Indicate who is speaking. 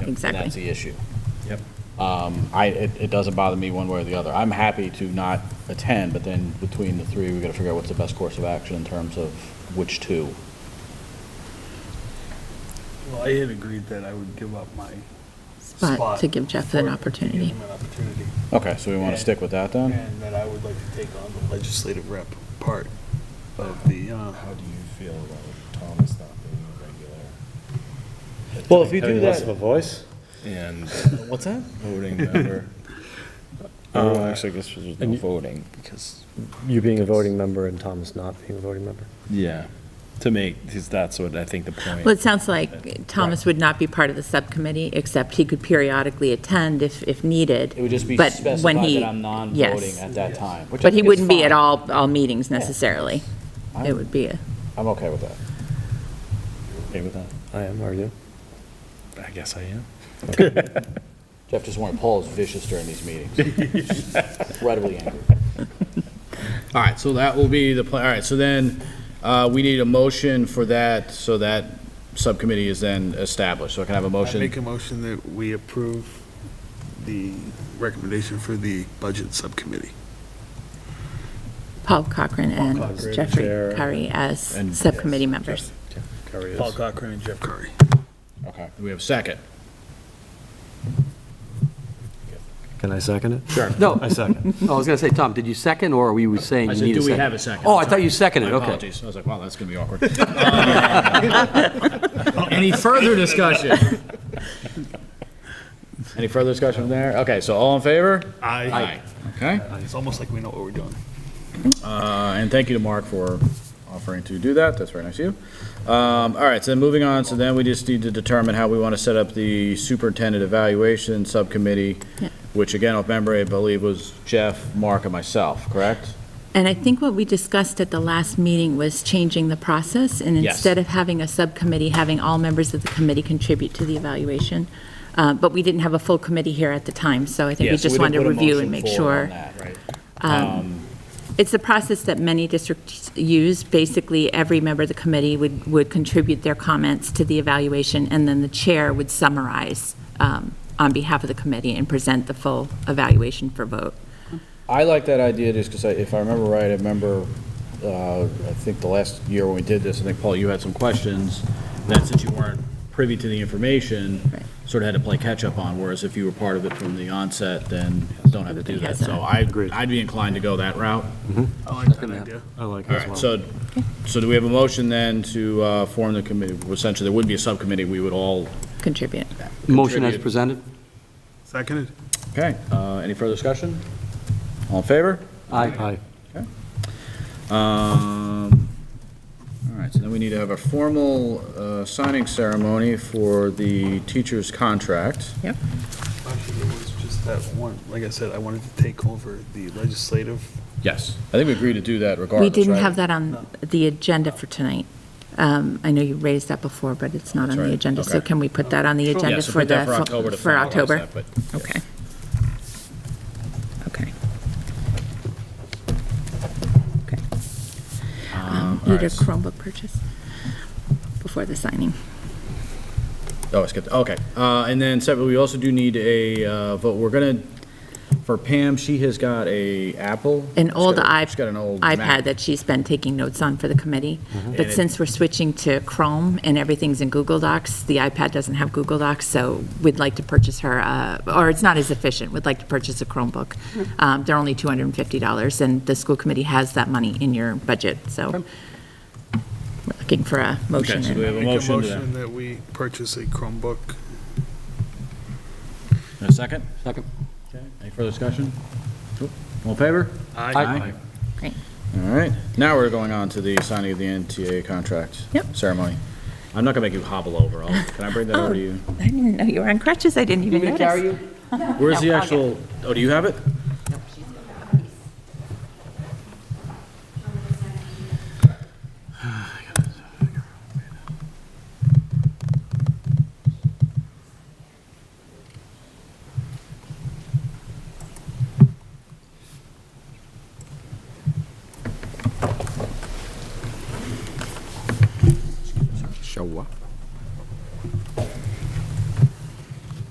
Speaker 1: And that's
Speaker 2: exactly.
Speaker 1: the issue.
Speaker 3: Yep.
Speaker 1: Um, I, it, it doesn't bother me one way or the other. I'm happy to not attend, but then between the three, we gotta figure out what's the best course of action in terms of which two.
Speaker 3: Well, I had agreed that I would give up my
Speaker 2: But
Speaker 3: spot.
Speaker 2: to give Jeff an
Speaker 3: for-
Speaker 2: opportunity.
Speaker 3: Give him an opportunity.
Speaker 1: Okay, so we wanna
Speaker 3: And-
Speaker 1: stick with that then?
Speaker 3: And that I would like to take on the legislative rep part of the, uh,
Speaker 4: How do you feel about Thomas not being a regular?
Speaker 1: Well, if you
Speaker 5: Having
Speaker 1: do
Speaker 5: less of a
Speaker 1: that.
Speaker 5: voice?
Speaker 4: And
Speaker 1: What's that?
Speaker 4: voting member. Uh,
Speaker 1: Oh, actually, I guess there's
Speaker 5: and you-
Speaker 1: voting, because.
Speaker 5: You being a voting member and Thomas not being a voting member.
Speaker 4: Yeah, to make, 'cause that's what I think the point.
Speaker 2: Well, it sounds like Thomas would not be part of the subcommittee, except he could periodically attend if, if needed.
Speaker 1: It would just be
Speaker 2: But
Speaker 1: specified
Speaker 2: when he-
Speaker 1: that I'm non-voting
Speaker 2: yes.
Speaker 1: at that time. which I
Speaker 2: But he
Speaker 1: think is
Speaker 2: wouldn't be at
Speaker 1: fine.
Speaker 2: all, all meetings necessarily. It would be, a-
Speaker 1: I'm okay with that.
Speaker 4: Okay with that?
Speaker 5: I am, are you?
Speaker 4: I guess I am.
Speaker 1: Jeff just warned Paul is vicious during these meetings. Incredibly angry.
Speaker 6: All right, so that will be the, pla- all right, so then, uh, we need a motion for that, so that subcommittee is then established. So I can have a
Speaker 3: I make
Speaker 6: motion?
Speaker 3: a motion that we approve the recommendation for the budget subcommittee.
Speaker 2: Paul Cochran and
Speaker 5: Cochran,
Speaker 2: Jeffrey
Speaker 5: Chair,
Speaker 2: Curry as
Speaker 6: and-
Speaker 2: subcommittee members.
Speaker 5: Carrie is.
Speaker 3: Paul Cochran and Jeff Curry.
Speaker 6: Okay, we have a second.
Speaker 5: Can I second it? Sure.
Speaker 7: No, Oh,
Speaker 5: I second.
Speaker 7: I was going to say, Tom, did you second, or were you saying
Speaker 6: I
Speaker 7: you
Speaker 6: said,
Speaker 7: need
Speaker 6: do
Speaker 7: a
Speaker 6: we
Speaker 7: second?
Speaker 6: have a second?
Speaker 7: Oh, I thought you seconded,
Speaker 6: My
Speaker 7: okay.
Speaker 6: apologies. I was like, wow, that's going to be awkward. Um, Any further discussion? Any further discussion from there? Okay, so all in favor?
Speaker 3: Aye.
Speaker 6: Okay,
Speaker 3: It's almost like we know what we're doing.
Speaker 6: uh, and thank you to Mark for offering to do that. That's very nice of you. Um, All right, so then moving on, so then we just need to determine how we want to set up the superintendent evaluation subcommittee,
Speaker 2: Yeah.
Speaker 6: which again, if memory, I believe was Jeff, Mark, and myself, correct?
Speaker 2: And I think what we discussed at the last meeting was changing the process, and
Speaker 6: Yes.
Speaker 2: instead of having a subcommittee, having all members of the committee contribute to the evaluation. Uh, But we didn't have a full committee here at the time, so I think we
Speaker 1: Yeah, so
Speaker 2: just
Speaker 1: didn't
Speaker 2: wanted to
Speaker 1: put a
Speaker 2: review
Speaker 1: motion
Speaker 2: and make
Speaker 1: forward on
Speaker 2: sure. um,
Speaker 1: that, Um, right?
Speaker 6: Um,
Speaker 2: It's the process that many districts use. Basically, every member of the committee would, would contribute their comments to the evaluation, and then the chair would summarize um, on behalf of the committee and present the full evaluation for vote.
Speaker 1: I like that idea just because if I remember right, I remember, uh, I think the last year when we did this, I think, Paul,
Speaker 6: Paul, you had some questions that since you weren't privy to the information,
Speaker 2: Right.
Speaker 6: sort of had to play catch-up on, whereas if you were part of it from the onset, then don't have to do that. So I, I'd be inclined to go that route.
Speaker 3: I like that idea.
Speaker 5: I like
Speaker 6: All
Speaker 5: it
Speaker 6: right,
Speaker 5: as well.
Speaker 6: so, so do we have a motion then to uh, form the committee? Essentially, there would be a subcommittee, we would all,
Speaker 2: Contribute.
Speaker 7: Motion as
Speaker 6: Contribute.
Speaker 7: presented?
Speaker 3: Seconded?
Speaker 6: okay, uh, any further discussion? All in favor?
Speaker 7: Aye.
Speaker 5: Aye.
Speaker 6: Um, All right, so then we need to have a formal uh, signing ceremony for the teacher's contract.
Speaker 3: Actually, it was just that one, like I said, I wanted to take over the legislative.
Speaker 6: Yes. I think we agreed to do that regardless,
Speaker 2: We didn't
Speaker 6: right?
Speaker 2: have that on the agenda for tonight. Um, I know you raised that before, but it's not on
Speaker 6: That's
Speaker 2: the
Speaker 6: right,
Speaker 2: agenda, so
Speaker 6: okay.
Speaker 2: can we put that on the
Speaker 6: Yeah,
Speaker 2: agenda
Speaker 6: so
Speaker 2: for
Speaker 6: put
Speaker 2: the?
Speaker 6: that for October to
Speaker 2: For
Speaker 6: finalize
Speaker 2: October?
Speaker 6: that, but-
Speaker 2: Okay. Okay. Okay. Um,
Speaker 6: all
Speaker 2: Need a
Speaker 6: right.
Speaker 2: Chromebook purchase before the signing.
Speaker 6: Oh, I skipped, okay. Uh, And then separately, we also do need a uh, vote. We're gonna, for Pam, she has got a Apple.
Speaker 2: An
Speaker 6: She's
Speaker 2: old
Speaker 6: got a-
Speaker 2: iP-
Speaker 6: She's got an old
Speaker 2: iPad
Speaker 6: Mac. Mm-hmm.
Speaker 2: that she's been taking notes on for the committee,
Speaker 6: And
Speaker 2: but
Speaker 6: it-
Speaker 2: since we're switching to Chrome and everything's in Google Docs, the iPad doesn't have Google Docs, so we'd like to purchase her, uh, or it's not as efficient, we'd like to purchase a Chromebook. Um, They're only $250, and the school committee has that money in your budget, so we're looking for a motion.
Speaker 6: Okay, so do we have a
Speaker 3: Make
Speaker 6: motion to that?
Speaker 3: that we purchase a Chromebook.
Speaker 6: A second?
Speaker 7: Second.
Speaker 6: Any further discussion? Cool. All in favor?
Speaker 7: Aye.
Speaker 2: Great.
Speaker 6: All right, now we're going on to the signing of the NTA contract.
Speaker 2: Yep.
Speaker 6: Ceremony. I'm not gonna make you hobble over. I'll- Can I bring that over to you?
Speaker 2: I didn't know you were on crutches, I didn't even notice.
Speaker 6: Where's the
Speaker 2: No, I'll
Speaker 6: actual, oh, do you have it?